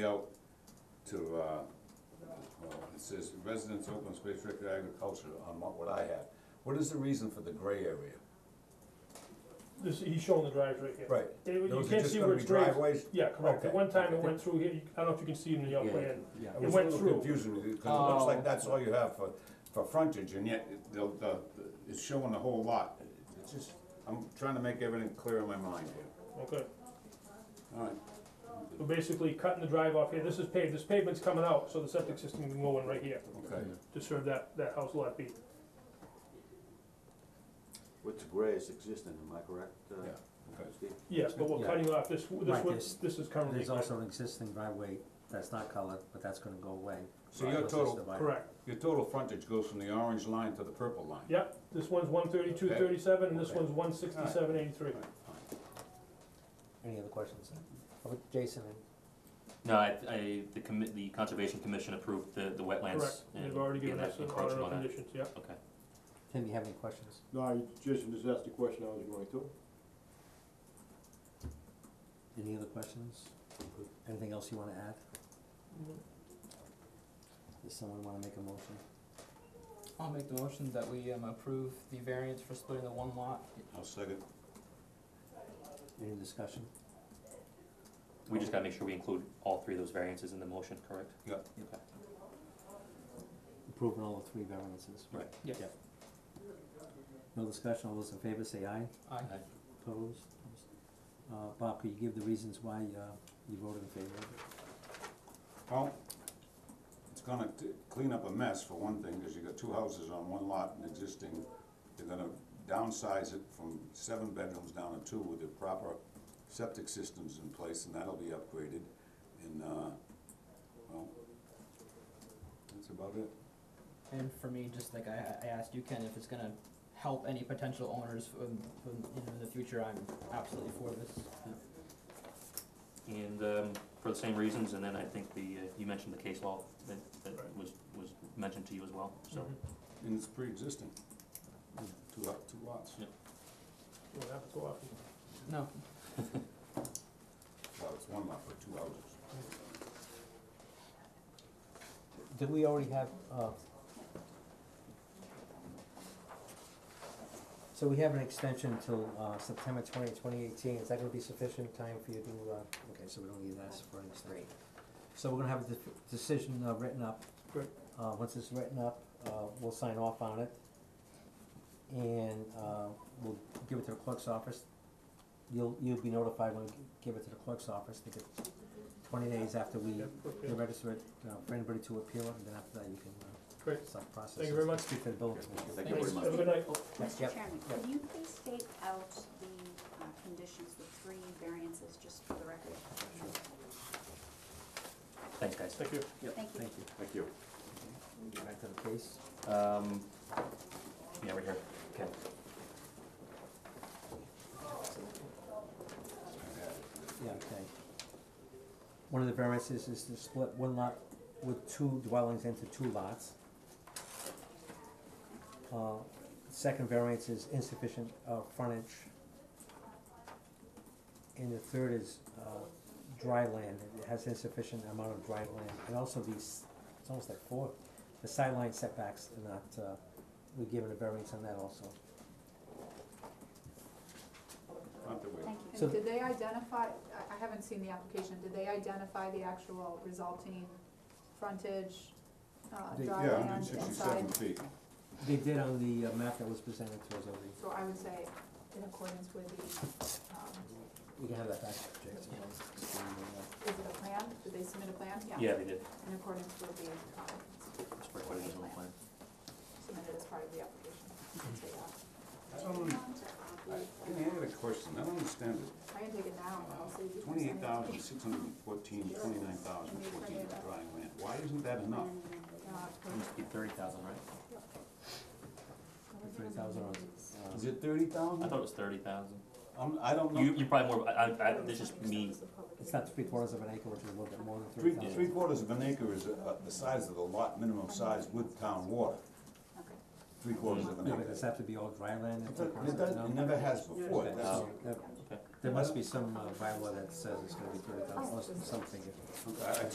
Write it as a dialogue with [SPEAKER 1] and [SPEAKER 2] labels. [SPEAKER 1] out to, uh, well, it says residents, open space, recreation, agriculture, on what what I have. What is the reason for the gray area?
[SPEAKER 2] This, he's showing the drives right here.
[SPEAKER 1] Right,
[SPEAKER 2] They- You
[SPEAKER 1] those are
[SPEAKER 2] can't
[SPEAKER 1] just
[SPEAKER 2] see
[SPEAKER 1] gonna
[SPEAKER 2] where
[SPEAKER 1] be
[SPEAKER 2] it's raised.
[SPEAKER 1] driveways?
[SPEAKER 2] Yeah, correct. At
[SPEAKER 1] Okay,
[SPEAKER 2] one time it
[SPEAKER 1] okay.
[SPEAKER 2] went through here, You- I don't know if you can see it in your
[SPEAKER 3] Yeah.
[SPEAKER 2] plan.
[SPEAKER 3] Yeah.
[SPEAKER 1] I was a
[SPEAKER 2] went
[SPEAKER 1] little
[SPEAKER 2] through.
[SPEAKER 1] confusing because it looks
[SPEAKER 3] Oh.
[SPEAKER 1] like that's all you have for, for frontage, and yet it- the, the, it's showing the whole lot. It's just, I'm trying to make everything clear in my mind here.
[SPEAKER 2] Okay,
[SPEAKER 1] All right,
[SPEAKER 2] so basically cutting the drive off here, this is paved, this pavement's coming out, so the septic system can go in right here
[SPEAKER 1] okay.
[SPEAKER 2] to serve that, that house lot B.
[SPEAKER 4] What's gray is existing, am I correct, uh,
[SPEAKER 1] Yeah. Okay.
[SPEAKER 4] Steve?
[SPEAKER 2] Yes, but we're
[SPEAKER 3] Yeah.
[SPEAKER 2] cutting off this, this
[SPEAKER 3] Right,
[SPEAKER 2] one,
[SPEAKER 3] this-
[SPEAKER 2] this is currently.
[SPEAKER 3] There's also an existing driveway that's not colored, but that's gonna go away.
[SPEAKER 1] So your
[SPEAKER 3] Unless it's
[SPEAKER 1] total-
[SPEAKER 3] divided.
[SPEAKER 2] Correct,
[SPEAKER 1] Your total frontage goes from the orange line to the purple line.
[SPEAKER 2] yep, this one's one thirty-two
[SPEAKER 1] Okay.
[SPEAKER 2] thirty-seven, and this
[SPEAKER 1] Okay.
[SPEAKER 2] one's one sixty-seven eighty-three.
[SPEAKER 3] Any other questions? How about Jason, and
[SPEAKER 5] No, I, I, the commi- the conservation commission approved the, the
[SPEAKER 2] Correct,
[SPEAKER 5] wetlands and
[SPEAKER 2] they've already
[SPEAKER 5] again,
[SPEAKER 2] given
[SPEAKER 5] that
[SPEAKER 2] us the order
[SPEAKER 5] encroachment
[SPEAKER 2] of
[SPEAKER 5] on that.
[SPEAKER 2] conditions, yep.
[SPEAKER 5] Okay.
[SPEAKER 3] Tim, you have any questions?
[SPEAKER 4] No, I, Jason just asked the question I was going to.
[SPEAKER 3] Any other questions? Anything else you wanna add? Does someone wanna make a motion?
[SPEAKER 6] I'll make the motion that we um, approve the variance for splitting the one lot.
[SPEAKER 1] I'll second.
[SPEAKER 3] Any discussion?
[SPEAKER 5] We just gotta make sure we include all three of those variances in the motion, correct?
[SPEAKER 1] Yeah.
[SPEAKER 5] Okay.
[SPEAKER 3] Approving all the three variances.
[SPEAKER 5] Right.
[SPEAKER 6] Yes.
[SPEAKER 3] Yep. No discussion, all those in favor say aye,
[SPEAKER 6] Aye.
[SPEAKER 5] Aye.
[SPEAKER 3] opposed? Uh, Bob, could you give the reasons why, uh, you voted in favor of it?
[SPEAKER 1] Well, it's gonna t- clean up a mess for one thing, because you got two houses on one lot and existing, they're gonna downsize it from seven bedrooms down to two with the proper septic systems in place, and that'll be upgraded, and, uh, well, that's about it.
[SPEAKER 6] And for me, just like I, I asked you, Ken, if it's gonna help any potential owners um, um, you know, in the future, I'm absolutely for this.
[SPEAKER 5] And, um, for the same reasons, and then I think the, uh, you mentioned the case law that,
[SPEAKER 2] Right.
[SPEAKER 5] that was, was mentioned to you as well, so.
[SPEAKER 2] Mhm.
[SPEAKER 1] And it's pre-existing, two, lo- two lots,
[SPEAKER 5] Yeah.
[SPEAKER 2] Don't have to go off.
[SPEAKER 6] No,
[SPEAKER 1] well, it's one lot, but two houses.
[SPEAKER 3] Did we already have, uh? So we have an extension till, uh, September twentieth, twenty eighteen, is that gonna be sufficient time for you to, uh, okay, so we don't need to ask for an extension? So we're gonna have a de- decision, uh, written up.
[SPEAKER 2] Great.
[SPEAKER 3] Uh, once it's written up, uh, we'll sign off on it. And, uh, we'll give it to the clerk's office, you'll, you'll be notified when we give it to the clerk's office, to get twenty days after we
[SPEAKER 2] Yep,
[SPEAKER 3] you
[SPEAKER 2] okay.
[SPEAKER 3] register it, uh, for anybody to appeal it, and then after that you can, uh,
[SPEAKER 2] Great,
[SPEAKER 3] start processing.
[SPEAKER 2] Thank you very much.
[SPEAKER 3] Speak to the building commissioner.
[SPEAKER 4] Thank you
[SPEAKER 2] thanks,
[SPEAKER 4] very much.
[SPEAKER 2] have a good night.
[SPEAKER 3] Yep,
[SPEAKER 7] Mr. Chairman,
[SPEAKER 3] yep.
[SPEAKER 7] could you please state out the uh, conditions, the three variances, just for the record?
[SPEAKER 5] Thanks, guys.
[SPEAKER 2] Thank you.
[SPEAKER 7] Thank you.
[SPEAKER 3] Thank you.
[SPEAKER 4] Thank you.
[SPEAKER 3] Get Back to the case.
[SPEAKER 5] Um, yeah, right here, okay.
[SPEAKER 3] Yeah, okay. One of the variances is to split one lot with two dwellings into two lots. Uh, second variance is insufficient, uh, frontage. And the third is, uh, dry land, it has insufficient amount of dry land, and also these, it's almost like four, the sideline setbacks are not, uh, we're given a variance on that also.
[SPEAKER 1] Not that we-
[SPEAKER 7] Thank you.
[SPEAKER 3] So-
[SPEAKER 8] And did they identify, I, I haven't seen the application, did they identify the actual resulting frontage, uh,
[SPEAKER 3] They-
[SPEAKER 8] dry
[SPEAKER 1] Yeah,
[SPEAKER 8] land
[SPEAKER 1] hundred
[SPEAKER 8] inside?
[SPEAKER 1] sixty-seven feet.
[SPEAKER 3] They did on the uh, map that was presented to us, already.
[SPEAKER 8] So I would say in accordance with the, um,
[SPEAKER 3] we can have that back, Jason.
[SPEAKER 8] is it a plan? Did they submit a plan?
[SPEAKER 5] Yeah, they did,
[SPEAKER 8] In accordance with the, um,
[SPEAKER 5] it's for quite a reasonable plan.
[SPEAKER 8] submitted as part of the application. I'd say that.
[SPEAKER 1] I don't, I had a question, I don't understand it.
[SPEAKER 8] I can take it now and I'll save you. from
[SPEAKER 1] Twenty-eight
[SPEAKER 8] sending it.
[SPEAKER 1] thousand, six hundred and fourteen, twenty-nine thousand, fourteen for dry land, why isn't that enough?
[SPEAKER 8] Uh,
[SPEAKER 5] It must be thirty thousand, right?
[SPEAKER 3] Three thousand on, uh,
[SPEAKER 1] Is it thirty
[SPEAKER 5] I
[SPEAKER 1] thousand?
[SPEAKER 5] thought it was thirty thousand.
[SPEAKER 1] I'm, I don't
[SPEAKER 5] You,
[SPEAKER 1] know,
[SPEAKER 5] you probably more, I, I, I, this is me,
[SPEAKER 3] it's not three quarters of an acre, which is a little bit more than
[SPEAKER 1] three,
[SPEAKER 3] three thousand.
[SPEAKER 1] three quarters of an acre is, uh, the size of the lot, minimum size with town water,
[SPEAKER 7] Okay.
[SPEAKER 1] three quarters of an
[SPEAKER 3] No, but
[SPEAKER 1] acre.
[SPEAKER 3] does it have to be all dry land?
[SPEAKER 1] It
[SPEAKER 3] and
[SPEAKER 1] does-
[SPEAKER 3] three quarters
[SPEAKER 1] It
[SPEAKER 3] of
[SPEAKER 1] does-
[SPEAKER 3] no?
[SPEAKER 1] it never has before, that's,
[SPEAKER 3] No, there-
[SPEAKER 5] okay.
[SPEAKER 3] there must be some uh, bylaw that says it's gonna be thirty thousand, or something.
[SPEAKER 1] I, I